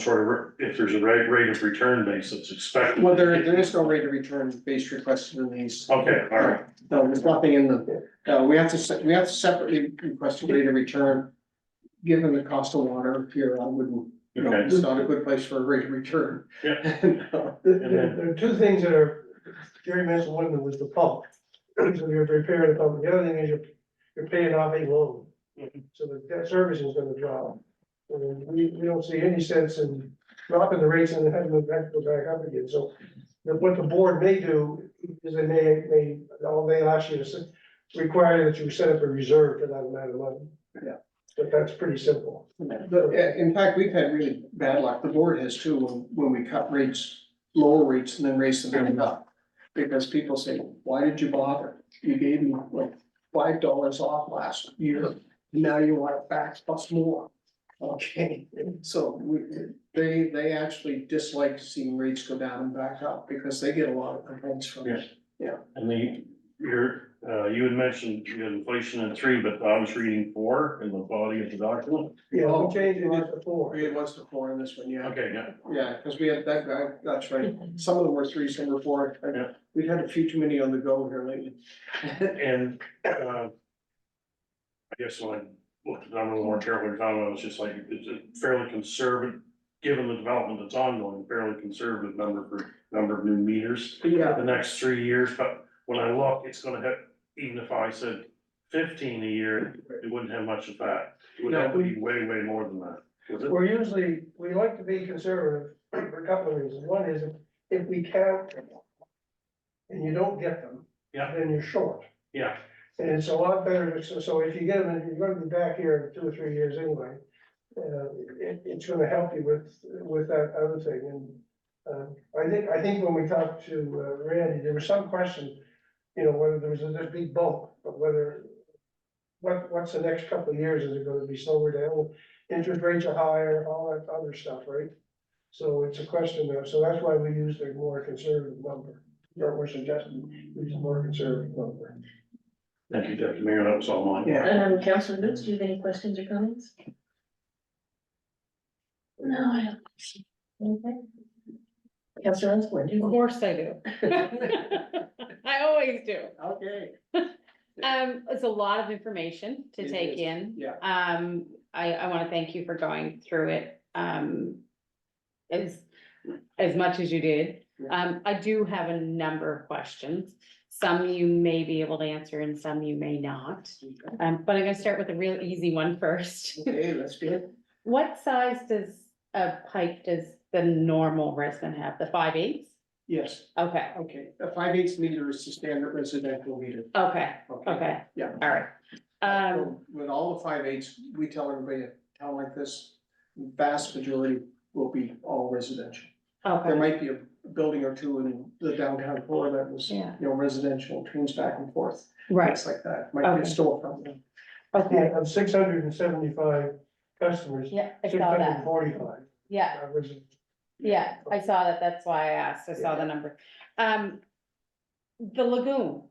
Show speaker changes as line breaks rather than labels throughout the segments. sort of, re- if there's a rate, rate of return base that's expected.
Well, there, there is no rate of return based request in these.
Okay, all right,
No, there's nothing in the, no, we have to, se- we have to separately request a rate of return. Given the cost of water here, I wouldn't, you know,
okay,
it's not a good place for a rate of return. Yeah.
There, there- there are two things that are, Jerry mentioned one of them was the pump. So you're repairing the pump, the other thing is you're, you're paying off a loan. So the debt service is gonna drop. And we, we don't see any sense in dropping the rates and having them back, go back up again, so. the- What the board may do is they may, may, all they ask you to se- require that you set up a reserve for that amount of money.
Yeah.
But that's pretty simple.
But, uh, in fact, we've had really bad luck, the board has too, when, when we cut rates, lower rates and then raise the bill up. Because people say, why did you bother? You gave me like five dollars off last year, now you want it back plus more. Okay, so we, they, they actually dislike seeing rates go down and back up because they get a lot of complaints from it.
and the, your, uh, you had mentioned you had inflation in three, but I was reading four in the body of the document.
Yeah, we changed it to four.
It was the four in this one, yeah.
Okay, yeah,
Yeah, because we had that guy, that's right, some of them were three, some were four,
Yeah.
we've had a few too many on the go here lately.
and, uh, I guess when I looked at them a little more carefully, Tom, I was just like, it's a fairly conservative, given the development that's ongoing, fairly conservative number for, number of new meters.
Yeah,
the next three years, but when I look, it's gonna hit, even if I said fifteen a year, it wouldn't have much effect. It would have to be way, way more than that. Was it?
We're usually, we like to be conservative for a couple of reasons. One is if we count them and you don't get them,
Yeah.
then you're short.
Yeah,
And it's a lot better, to- so, so if you get them, and you're gonna be back here in two or three years anyway. Uh, it, it's gonna help you with, with that other thing, and, um I think, I think when we talked to uh, Randy, there was some question, you know, whether there was a this big bump, but whether, what, what's the next couple of years, is it gonna be slower down, interest rates are higher, all that other stuff, right? So it's a question of, so that's why we used a more conservative number, or we're suggesting, we use a more conservative number.
thank you, Deputy Mayor, that was all mine.
yeah,
Um, Councilor Boots, do you have any questions or comments? No, I don't. Okay. Councilor Osborne, do
Of
you?
course I do. I always do.
okay,
Um, it's a lot of information
It
to take
is,
in.
yeah.
Um, I, I want to thank you for going through it, um, as, as much as you did.
Yeah.
Um, I do have a number of questions. Some you may be able to answer and some you may not. Um, but I'm gonna start with a real easy one first.
okay, let's do it.
What size does a pipe does the normal resident have? The five eighths?
Yes,
Okay,
okay, a five eighths meter is the standard residential meter.
okay, okay,
Yeah.
all right. Um,
So With all the five eighths, we tell everybody, a town like this, vast majority will be all residential. There
okay,
might be a building or two in the downtown floor that was, you
Yeah.
know, residential, turns back and forth,
right,
things like that, might be a
Okay.
storefront.
okay,
Yeah, of six hundred and seventy-five customers,
yeah, I
six
saw
hundred and
that,
forty-five.
yeah, yeah, I saw that, that's why I asked, I saw the number. Um, the lagoon.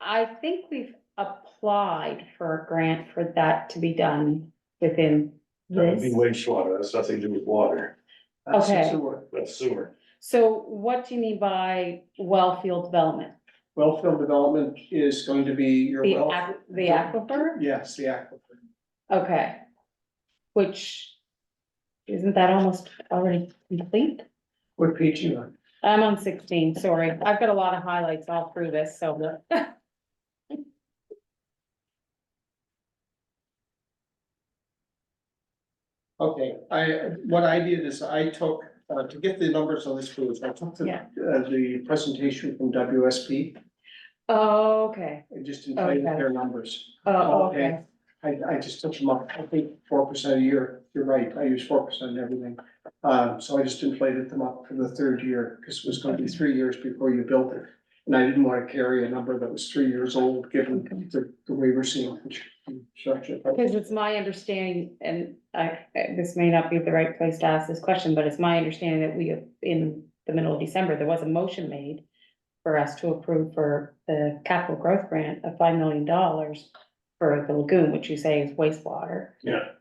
I think we've applied for a grant for that to be done within
That would be
this.
wastewater, that's nothing to do with water,
That's the
Okay.
uh, sewer.
that's sewer.
So what do you mean by well field development?
Wellfield development is going to be your
The
well.
aqu- the aquifer?
Yes, the aquifer.
Okay. Which, isn't that almost already complete?
What page you on?
I'm on sixteen, sorry. I've got a lot of highlights all through this, so.
Okay, I, what I did is I took, uh, to get the numbers on this page, I took the,
Yeah.
uh, the presentation from WSP.
Oh, Okay,
I just inflated
Okay.
their numbers.
oh,
Okay.
okay,
I, I just took them up, I think four percent a year, you're right, I use four percent everything. Uh, so I just inflated them up for the third year, because it was gonna be three years before you built it. And I didn't wanna carry a number that was three years old, given the, the way we're seeing construction.
because it's my understanding, and I, this may not be the right place to ask this question, but it's my understanding that we, in the middle of December, there was a motion made for us to approve for the capital growth grant of five million dollars for the lagoon, which you say is wastewater.
Yeah.